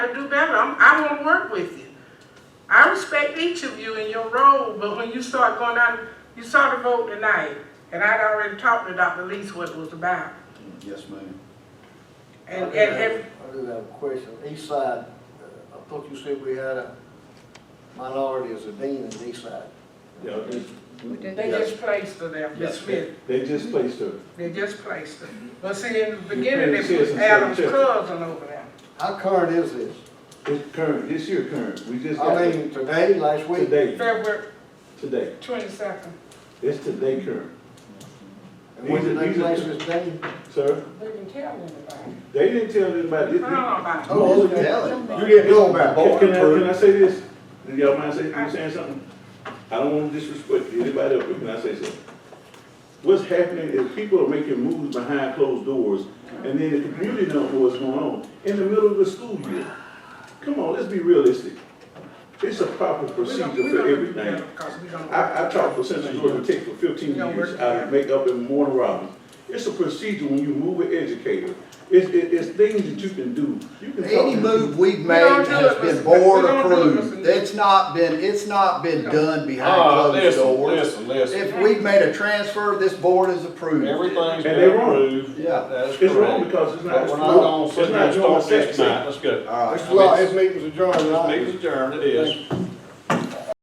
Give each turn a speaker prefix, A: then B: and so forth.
A: to do better. I'm, I want to work with you. I respect each of you in your role, but when you start going down, you saw the vote tonight, and I'd already talked to Dr. Lees what it was about.
B: Yes, ma'am.
A: And,
C: I
A: and,
C: do have-
A: and,
C: I do have a question. East side, uh, I thought you said we had a minority as a dean in east side.
D: Yeah, they-
A: they just placed her there, Ms. Smith,
D: They just placed her.
A: they just placed her. But see, in the beginning,
D: couldn't
A: it
D: see
A: was
D: us until
A: Adam's
D: you checked.
A: cousin over there.
C: How current is this?
D: It's current, this year current. We just got
C: I
D: it
C: mean, today, last week?
D: today,
A: February
D: today.
A: twenty-second.
D: It's today current.
C: And when
D: These
C: did
D: are-
C: they
D: these are-
C: place this dean?
D: Sir,
A: They didn't tell anybody.
D: they didn't tell
A: I
D: anybody.
A: don't know about it.
C: Oh,
B: okay.
C: You didn't know about
D: Can,
C: it.
D: can I, can I say this? Do y'all mind saying, you saying something? I don't want to disrespect anybody else, but can I say something? What's happening is people are making moves behind closed doors, and then the community don't know what's going on in the middle of the school year. Come on, let's be realistic. It's a proper
A: We don't-
D: procedure
A: we
D: for
A: don't do
D: everything.
A: that because we don't-
D: I, I taught for Central Georgia Tech for fifteen years out of Makeup and Warner Robins. It's a procedure when you move an educator. It's, it- it's things that you can do. You can talk
B: Any
D: to-
B: move we've
A: We don't
B: made
A: do
B: has
A: it,
B: been
A: Mr.
B: board
A: We don't do it,
B: approved.
A: Mr. Nick.
B: It's not been, it's not been done
E: Ah,
B: behind closed
E: listen,
B: doors.
E: listen, listen.
B: If we've made a transfer, this board has approved. it.
D: And
E: Everything's
D: they
E: been
D: wrong.
E: approved.
B: Yeah.
E: That is
D: It's wrong
E: correct.
D: because it's not,
E: But
D: it's
E: we're not
D: not,
E: gonna
D: it's
E: sit here
D: not
E: and
D: doing
E: start this
D: sex.
E: tonight. Let's go.
B: All right.
C: Mr. Law, this meeting's adjourned.
E: This meeting's adjourned, it is.